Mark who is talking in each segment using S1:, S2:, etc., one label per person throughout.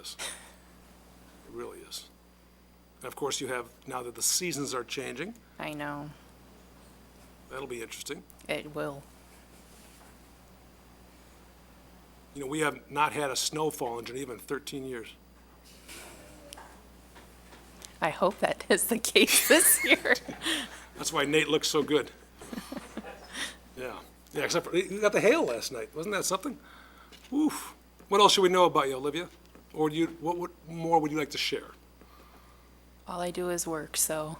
S1: is. It really is. And of course, you have, now that the seasons are changing,
S2: I know,
S1: that'll be interesting.
S2: it will.
S1: You know, we have not had a snowfall in Geneva in 13 years.
S2: I hope that is the case this year.
S1: That's why Nate looks so good. Yeah, yeah, except for, you got the hail last night, wasn't that something? Oof. What else should we know about you, Olivia? Or do you, what, what more would you like to share?
S2: All I do is work, so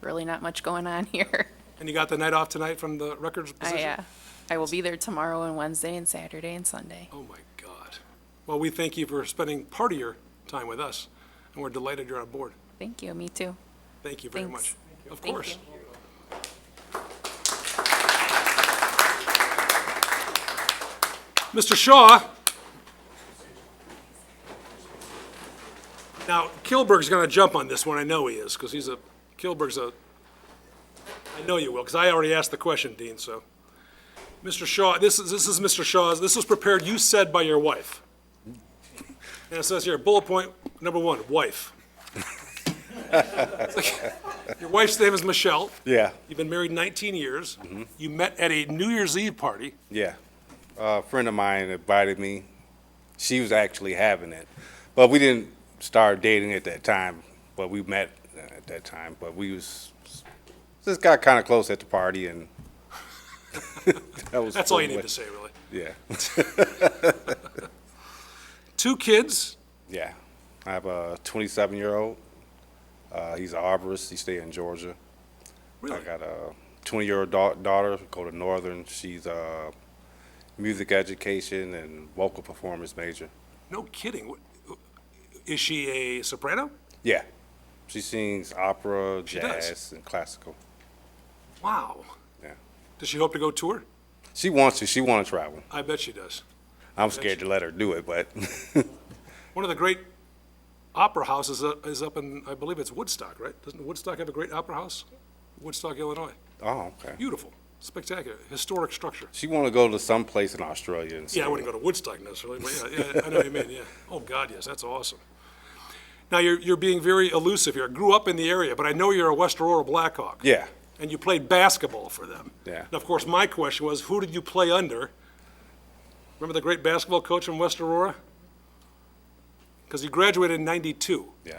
S2: really not much going on here.
S1: And you got the night off tonight from the records position?
S2: I, uh, I will be there tomorrow and Wednesday and Saturday and Sunday.
S1: Oh, my God. Well, we thank you for spending part of your time with us, and we're delighted you're on board.
S2: Thank you, me too.
S1: Thank you very
S2: Thanks.
S1: much. Of
S2: Thank
S1: course. Mr. Shaw. Now, Kilberg's going to jump on this one, I know he is, because he's a, Kilberg's a, I know you will, because I already asked the question, Dean, so. Mr. Shaw, this is, this is Mr. Shaw's, this was prepared, you said by your wife. And it says here, bullet point number one, wife. Your wife's name is Michelle.
S3: Yeah,
S1: You've been married 19 years. You met at a New Year's Eve party.
S3: yeah. a friend of mine invited me. She was actually having it, but we didn't start dating at that time. But we met uh, at that time. But we was just got kind of close at the party, and that was.
S1: That's all you
S3: pretty
S1: need to say, really.
S3: much- Yeah,
S1: Two kids.
S3: yeah. I have a 27 year old. Uh, he's an arborist. He stay in Georgia.
S1: Really?
S3: I got a 20 year old da- daughter, go to Northern. She's a music education and vocal performance major.
S1: No kidding. Wh- Is she a soprano?
S3: Yeah. She sings opera,
S1: does.
S3: jazz, and classical.
S1: Wow.
S3: Yeah.
S1: Does she hope to go tour?
S3: She wants to. She want to travel.
S1: I bet she does.
S3: I'm scared to let her do it, but
S1: One of the great opera houses uh, is up in, I believe it's Woodstock, right? Doesn't Woodstock have a great opera house? Woodstock, Illinois.
S3: oh, okay.
S1: Beautiful, spectacular, historic structure.
S3: She want to go to some place in Australia. And
S1: Yeah, I wouldn't go to Woodstock necessarily, but yeah, yeah, I know what you mean, yeah. Oh, God, yes, that's awesome. Now, you're, you're being very elusive here. I grew up in the area, but I know you're a West Aurora Blackhawk.
S3: Yeah.
S1: And you played basketball for them.
S3: Yeah.
S1: And of course, my question was, who did you play under? Remember the great basketball coach from West Aurora? Because he graduated in 92.
S3: Yeah.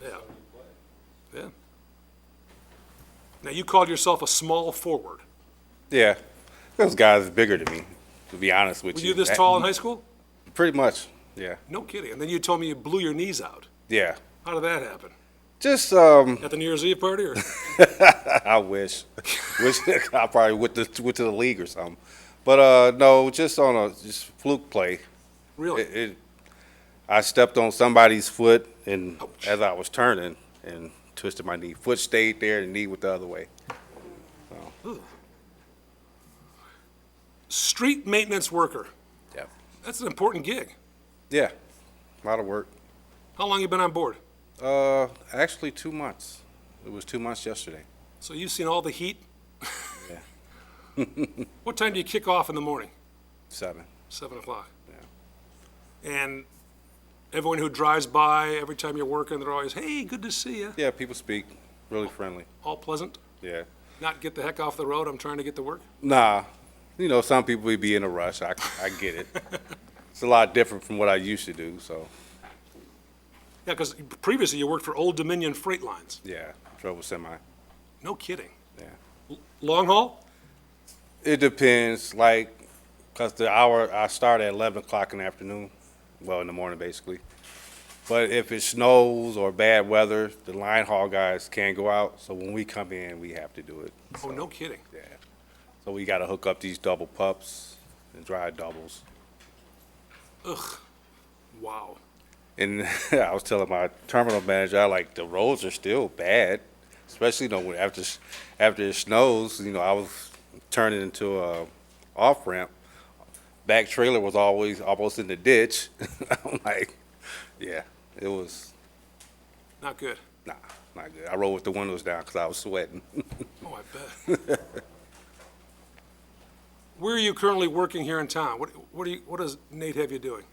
S1: Yeah. Yeah. Now, you called yourself a small forward.
S3: Yeah. Those guys are bigger than me, to be honest with
S1: Were
S3: you.
S1: you this
S3: That-
S1: tall in high school?
S3: Pretty much. Yeah.
S1: No kidding. And then you told me you blew your knees out.
S3: Yeah.
S1: How did that happen?
S3: Just um,
S1: At the New Year's Eve party, or
S3: I wish, wish I probably went to went to the league or something, but uh, no, just on a just fluke play.
S1: really?
S3: it, it, I stepped on somebody's foot and as I was turning and twisted my knee. Foot stayed there and knee went the other way.
S1: Street maintenance worker.
S3: Yeah.
S1: That's an important gig.
S3: Yeah. A lot of work.
S1: How long you been on board?
S3: Uh, actually two months. It was two months yesterday.
S1: So you've seen all the heat.
S3: Yeah.
S1: What time do you kick off in the morning?
S3: Seven.
S1: Seven o'clock.
S3: Yeah.
S1: And everyone who drives by every time you're working, they're always, "Hey, good to see you."
S3: Yeah, people speak. Really friendly.
S1: All pleasant.
S3: Yeah.
S1: Not get the heck off the road. I'm trying to get to work.
S3: Nah. You know, some people would be in a rush. I, I get it. it's a lot different from what I used to do, so
S1: Yeah, because previously you worked for Old Dominion Freight Lines.
S3: yeah. Trouble semi.
S1: No kidding.
S3: Yeah.
S1: Long haul?
S3: It depends, like, cause the hour I start at eleven o'clock in the afternoon, well, in the morning basically. But if it snows or bad weather, the line haul guys can't go out, so when we come in, we have to do it.
S1: Oh, no kidding.
S3: Yeah. So we gotta hook up these double pups and dry doubles.
S1: Wow.
S3: And I was telling my terminal manager, I like the roads are still bad, especially you know when after s- after it snows. You know, I was turning into a off ramp. Back trailer was always almost in the ditch. I'm like, yeah, it was
S1: Not good.
S3: nah, not good. I rode with the windows down because I was sweating.
S1: Oh, I bet. Where are you currently working here in town? What, what do you, what does Nate have you doing?